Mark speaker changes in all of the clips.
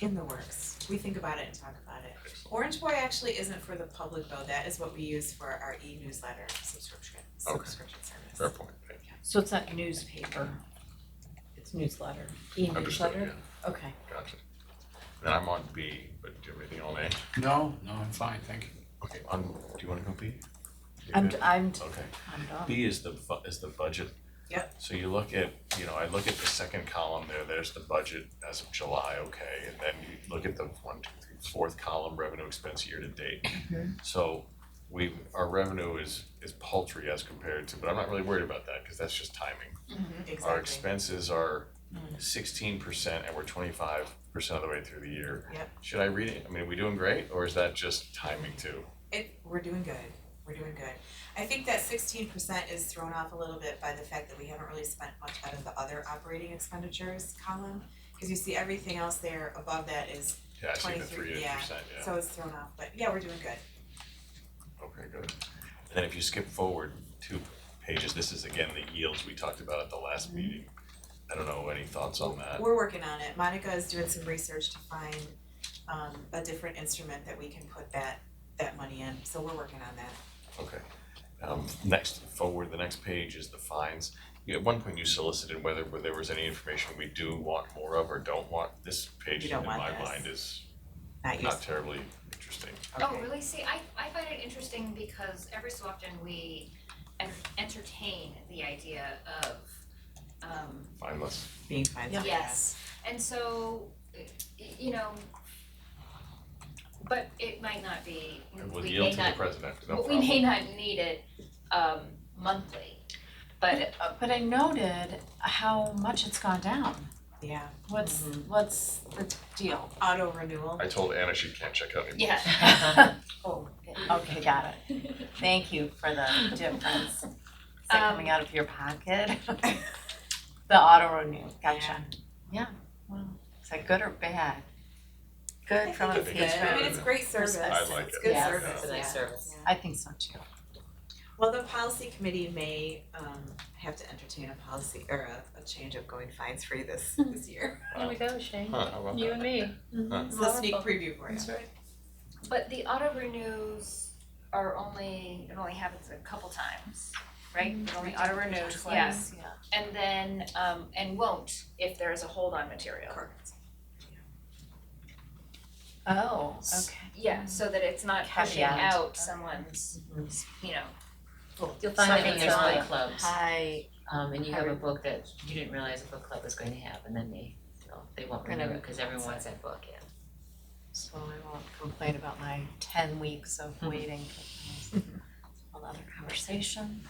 Speaker 1: in the works. We think about it and talk about it. Orange Boy actually isn't for the public though, that is what we use for our e-newsletter subscription,
Speaker 2: Okay.
Speaker 1: subscription service.
Speaker 2: Fair point, thank
Speaker 3: So it's not newspaper, it's newsletter,
Speaker 2: you. Understood,
Speaker 3: e-newsletter?
Speaker 2: yeah,
Speaker 3: Okay.
Speaker 2: gotcha. Then I'm on B, but do you have anything on A?
Speaker 4: No, no, I'm fine, thank you.
Speaker 2: Okay, on, do you wanna go B?
Speaker 3: I'm,
Speaker 2: David?
Speaker 3: I'm,
Speaker 2: Okay.
Speaker 3: I'm done.
Speaker 2: B is the bu- is the budget.
Speaker 1: Yep.
Speaker 2: So you look at, you know, I look at the second column there, there's the budget as of July, okay, and then you look at the one, two, three, fourth column, revenue expense year to date. So we, our revenue is is paltry as compared to, but I'm not really worried about that, cause that's just timing. Our
Speaker 1: Mm-hmm. Exactly. Mm.
Speaker 2: expenses are sixteen percent and we're twenty-five percent of the way through the year.
Speaker 1: Yep.
Speaker 2: Should I read it? I mean, are we doing great, or is that just timing too?
Speaker 1: It, we're doing good, we're doing good. I think that sixteen percent is thrown off a little bit by the fact that we haven't really spent much out of the other operating expenditures column. Cause you see everything else there above that is,
Speaker 2: Yeah, I see the
Speaker 1: 23,
Speaker 2: three eight
Speaker 1: yeah.
Speaker 2: percent, yeah.
Speaker 1: so it's thrown off, but yeah, we're doing good.
Speaker 2: Okay, good. And then if you skip forward two pages, this is again the yields we talked about at the last
Speaker 1: Mm-hmm.
Speaker 2: meeting. I don't know, any thoughts on that?
Speaker 1: We're working on it. Monica is doing some research to find um a different instrument that we can put that that money in, so we're working on that.
Speaker 2: Okay. Um, next, forward, the next page is the fines. You- At one point you solicited whether, whether there was any information we do want more of or don't want. This page
Speaker 1: You
Speaker 2: in
Speaker 1: don't want
Speaker 2: my
Speaker 1: this.
Speaker 2: mind is
Speaker 1: Not
Speaker 2: not
Speaker 1: used,
Speaker 2: terribly interesting.
Speaker 5: Oh,
Speaker 1: okay.
Speaker 5: really? See, I, I find it interesting because every so often we en- entertain the idea of, um,
Speaker 2: Fineless.
Speaker 1: Being fine,
Speaker 3: Yeah.
Speaker 5: yes. And so, y- y- you know, but it might not be,
Speaker 2: It will
Speaker 5: we may
Speaker 2: yield to the
Speaker 5: not,
Speaker 2: president, no
Speaker 5: but
Speaker 2: problem.
Speaker 5: we may not need it, um, monthly. But,
Speaker 3: Uh, But I noted how much it's gone down.
Speaker 1: Yeah,
Speaker 3: What's,
Speaker 1: Mm-hmm.
Speaker 3: what's the deal?
Speaker 1: auto renewal.
Speaker 2: I told Anna she can't check out anymore.
Speaker 5: yeah.
Speaker 1: Uh-huh.
Speaker 3: Oh, okay, got it. Thank you for the difference. Is that
Speaker 5: Um,
Speaker 3: coming out of your pocket? The auto renew,
Speaker 1: Yeah.
Speaker 3: gotcha. Yeah, well, is that good or bad? Good from
Speaker 1: I
Speaker 3: a
Speaker 1: think it's
Speaker 3: page.
Speaker 1: good. I mean, it's great service.
Speaker 2: I like
Speaker 1: It's
Speaker 2: it.
Speaker 1: good
Speaker 3: Yeah.
Speaker 1: service,
Speaker 6: It's a nice
Speaker 1: yeah.
Speaker 6: service.
Speaker 3: I think so too.
Speaker 1: Well, the policy committee may um have to entertain a policy or a a change of going fines free this this year.
Speaker 2: Here we
Speaker 7: go, Shane.
Speaker 2: Huh, how about that?
Speaker 7: me.
Speaker 1: It's a sneak preview for you.
Speaker 5: But the auto renews are only, it only happens a couple times, right? It only auto renews, yeah.
Speaker 3: yeah.
Speaker 5: And then, um, and won't if there is a hold on material.
Speaker 1: Correct.
Speaker 3: Oh, okay.
Speaker 5: Yeah, so that it's not pushing
Speaker 3: Caveat.
Speaker 5: out someone's, you know,
Speaker 6: You'll find that when
Speaker 5: Something is
Speaker 6: there's book
Speaker 5: like-
Speaker 6: clubs,
Speaker 3: Hi,
Speaker 6: um, and you have a
Speaker 5: Hard.
Speaker 6: book that you didn't realize a book club was going to have, and then they, you know, they won't
Speaker 3: Kind of-
Speaker 6: renew it, cause everyone wants that book, yeah.
Speaker 3: so I won't complain about my ten weeks of
Speaker 6: Mm-hmm.
Speaker 3: waiting. Another conversation.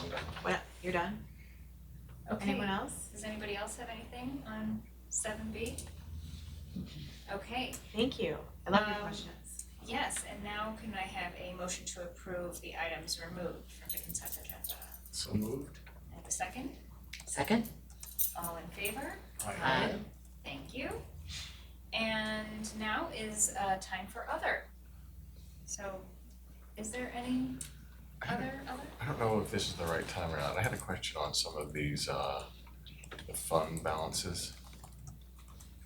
Speaker 2: I'm done.
Speaker 1: Well, you're done?
Speaker 5: okay,
Speaker 1: Anyone else?
Speaker 5: does anybody else have anything on seven B? Okay,
Speaker 1: Thank you. I love your
Speaker 5: Um,
Speaker 1: questions.
Speaker 5: yes, and now can I have a motion to approve the items removed from the consent agenda?
Speaker 4: So moved.
Speaker 5: And a second,
Speaker 6: Second?
Speaker 5: all in favor?
Speaker 4: Aye.
Speaker 6: Aye.
Speaker 5: Thank you. And now is uh time for other. So is there any other other?
Speaker 2: I don't know if this is the right time or not. I had a question on some of these, uh, the fund balances.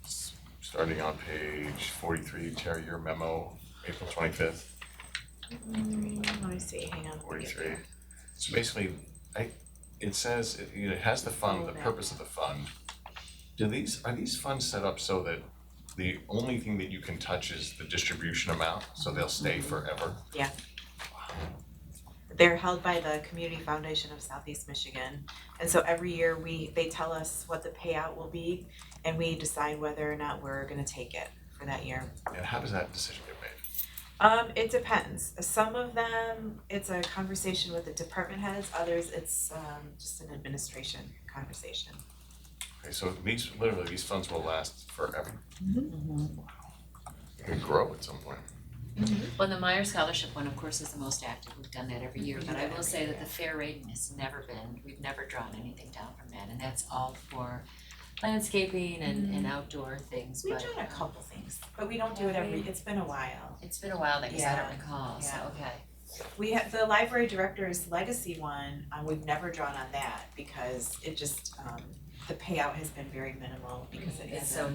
Speaker 2: S- Starting on page forty-three, Terry, your memo, April twenty-fifth,
Speaker 1: Mm, Let me see, hang on. let me get
Speaker 2: forty-three. So basically, I, it says, it, you know, it has the fund, the purpose of the fund. Do these, are these funds set up so that the only thing that you can touch is the distribution amount, so they'll stay forever?
Speaker 1: They're held by the Community Foundation of Southeast Michigan. And so every year we, they tell us what the payout will be and we decide whether or not we're gonna take it for that year.
Speaker 2: And how does that decision get made?
Speaker 1: Um, it depends. Some of them, it's a conversation with the department heads, others it's um just an administration conversation.
Speaker 2: Okay, so these, literally, these funds will last forever. They grow at some point.
Speaker 6: Well, the Meyer Scholarship one, of course, is the most active, we've done that every year,
Speaker 3: Mm-hmm.
Speaker 6: but I will say that the fair rating has never been, we've never drawn anything down from that, and that's all for landscaping
Speaker 3: Mm-hmm.
Speaker 6: and, and outdoor things,
Speaker 1: We've
Speaker 6: but
Speaker 1: done a couple things, but we don't do it every, it's been a while.
Speaker 6: it's been a while, like, 'cause I
Speaker 1: Yeah.
Speaker 6: don't recall, so,
Speaker 1: Yeah.
Speaker 6: okay.
Speaker 1: We have, the library director's legacy one, um, we've never drawn on that because it just, um, the payout has been very minimal because it
Speaker 6: It's
Speaker 1: isn't.
Speaker 6: so